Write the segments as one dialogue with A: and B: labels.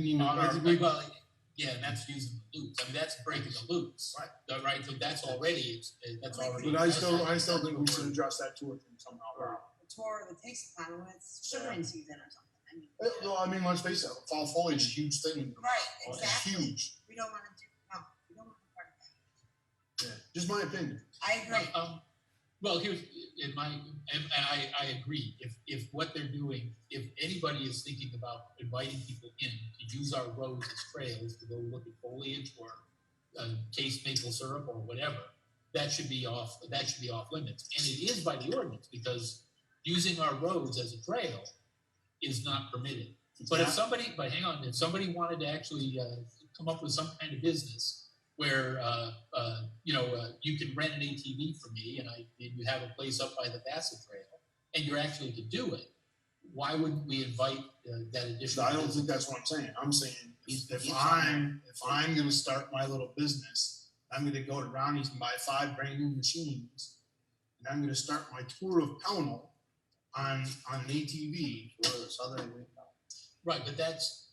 A: You know,
B: On our-
A: as we-
B: well, yeah, that's using the loops, I mean, that's breaking the loops.
C: Right.
B: The- Right, so that's already, that's already.
C: But I still, I still think we should address that too, I think somehow.
D: the tour that takes the time when it's sugaring season or something. I mean,
C: Uh, No, I mean, let's face it, fall foliage is a huge thing.
D: right,
C: It's
D: exactly.
C: huge,
D: We don't want to do no, we don't want to part of that.
C: yeah, just my opinion.
D: I agree.
B: Um, Well, here's, in my, and, and I, I agree, if, if what they're doing, if anybody is thinking about inviting people in to use our roads as trails to go look at foliage or, uh, taste maple syrup or whatever, that should be off, that should be off limits, and it is by the ordinance, because using our roads as a trail is not permitted. But if somebody, but hang on, if somebody wanted to actually uh, come up with some kind of business where, uh, uh, you know, uh, you can rent an ATV from me and I, and you have a place up by the Bassett Trail and you're actually to do it, why wouldn't we invite uh, that
C: So
B: additional?
C: I don't
B: business?
C: think that's what I'm saying, I'm saying,
E: He's-
C: if if
E: he's-
C: I'm, if I'm gonna start my little business, I'm gonna go to Ronnie's and buy five brand new machines. And I'm gonna start my tour of Pownell on, on an ATV, or this other,
B: Right, but that's,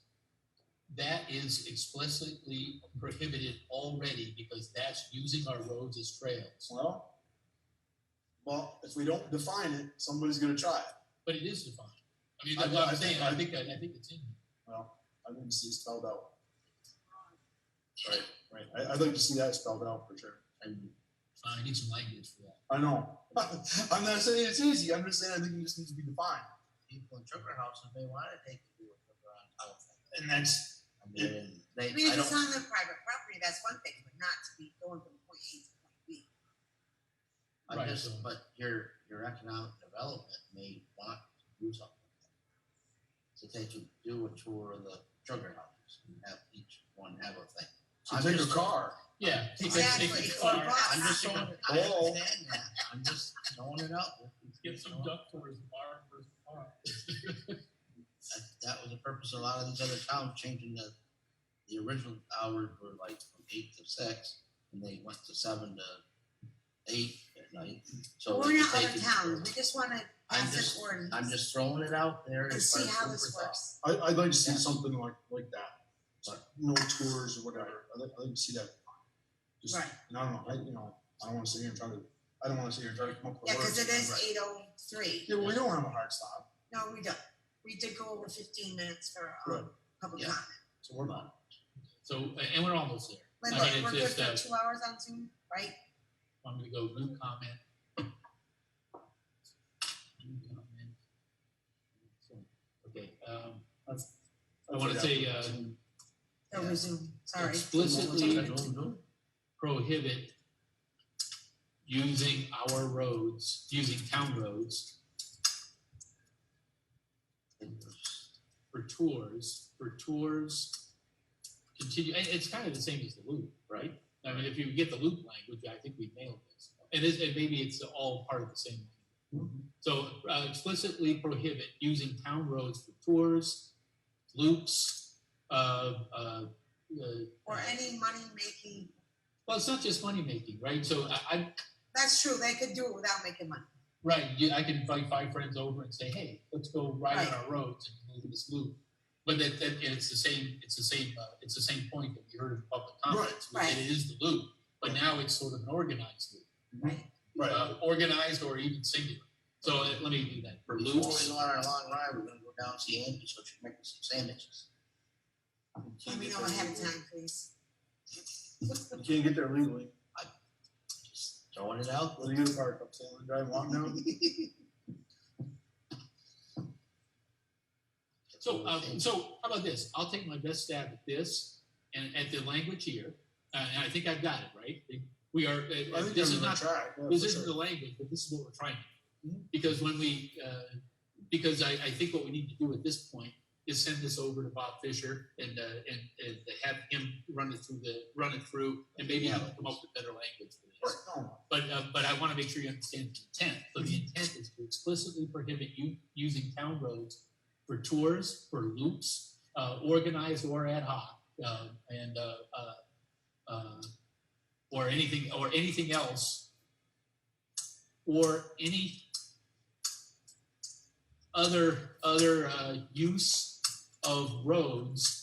B: that is explicitly prohibited already because that's using our roads as trails.
C: well. Well, if we don't define it, somebody's gonna try it.
B: But it is defined. I mean,
C: I-
B: that's what
C: I
B: I'm
C: think-
B: saying, I think, that- I think it's in. here.
C: Well, I didn't see it spelled out. Right, right. I, I'd like to see that spelled out for sure. I,
B: Uh, I need some language for that.
C: I know. I'm not saying it's easy. I'm just saying I think it just needs to be defined.
E: people in trigger houses, they want to take you to a trigger house. I don't think.
C: And that's,
E: I mean, they,
D: I mean,
E: I
D: if it's
E: don't,
D: on the private property, that's one thing, but not to be going from point A to point B.
E: I
B: Right,
E: just,
B: so-
E: but your, your economic development may want to do something. like that. So they should do a tour of the trigger houses and have each one have a thing.
C: so
E: I'm
C: take your
E: just-
C: car.
B: Yeah. take- take-
D: Exactly,
B: take
D: it's
B: the car.
D: on us.
E: I'm just throwing, I
C: Oh.
E: understand that, I'm just throwing it out. there.
B: Get some duck tours tomorrow versus tomorrow.
E: That, that was the purpose of a lot of these other towns changing the, the original hours were like from eight to six, and they went to seven to eight at night, so.
D: We're
E: they
D: not
E: could
D: other
E: take it-
D: towns, we just want to
E: I'm
D: pass
E: just-
D: an ordinance.
E: I'm just throwing it out there.
D: And
E: as
D: see
E: far as
D: how
E: food
D: this
E: for thought.
D: works.
C: I, I'd like to see
E: Yeah.
C: something like, like that. Like no tours or whatever. I'd like, I'd like to see that. Just,
D: Right,
C: And I don't know. I, you know, I don't want to sit here and try to, I don't want to sit here and try to come up with
D: yeah,
C: words.
D: cause it is
C: Right.
D: eight oh three.
C: Yeah, well, we don't have a hard stop,
D: No, we don't. We did go over fifteen minutes for,
C: Right.
D: um, public
E: Yeah.
D: comment.
C: so we're not.
B: So, and we're almost there. I
D: Linda,
B: mean,
D: we're good
B: it's
D: for
B: just,
D: two hours on Zoom, right?
B: I'm gonna go new comment. New comment. So, Okay, um,
C: That's-
B: I wanna
C: that's-
B: say, uh,
D: No,
E: Yeah.
D: we're Zoom, sorry.
B: explicitly prohibit using our roads, using town roads for tours, for tours. Continue, it- it's kind of the same as the loop, right? I mean, if you get the loop language, I think we nailed this. And it, and maybe it's all part of the same. So uh, explicitly prohibit using town roads for tours, loops, uh, uh, uh,
D: Or any money-making,
B: well, it's not just money making, right? So I, I,
D: that's true, they could do it without making money.
B: Right, yeah, I can invite five friends over and say, hey, let's go ride on
D: Right.
B: our roads and move this loop. But that, that, and it's the same, it's the same, uh, it's the same point that we heard in public comments, which
D: Right.
B: it is the loop, but now it's sort of an organized loop.
C: Right.
B: uh, Organized or even singular, so uh, let me do that, for
E: Before we go
B: loops,
E: on our long ride, we're gonna go down and see Andy, so she's making some sandwiches.
D: Let me know in ahead of time, please.
C: You can't get there legally.
E: Just Throwing it out.
C: What do you do, park up Salmon Drive, walk down?
B: so, uh, so how about this, I'll take my best stab at this, and at the language here, uh, and I think I've got it, right? We are, uh,
C: I think
B: this
C: I'm
B: is
C: gonna
B: not
C: try. Yeah,
B: this
C: for
B: isn't
C: sure.
B: the language, but this is what we're trying to do.
C: Mhm.
B: Because when we, uh, because I, I think what we need to do at this point is send this over to Bob Fisher and, uh, and, and have him run it through the, run it through, and maybe he'll come up with better language for this.
C: No,
B: But, uh, but I wanna make sure you understand the intent, so the intent is to explicitly prohibit you using town roads for tours, for loops, uh, organized or ad hoc, uh, and, uh, uh, uh, or anything, or anything else, or any other, other, uh, use of roads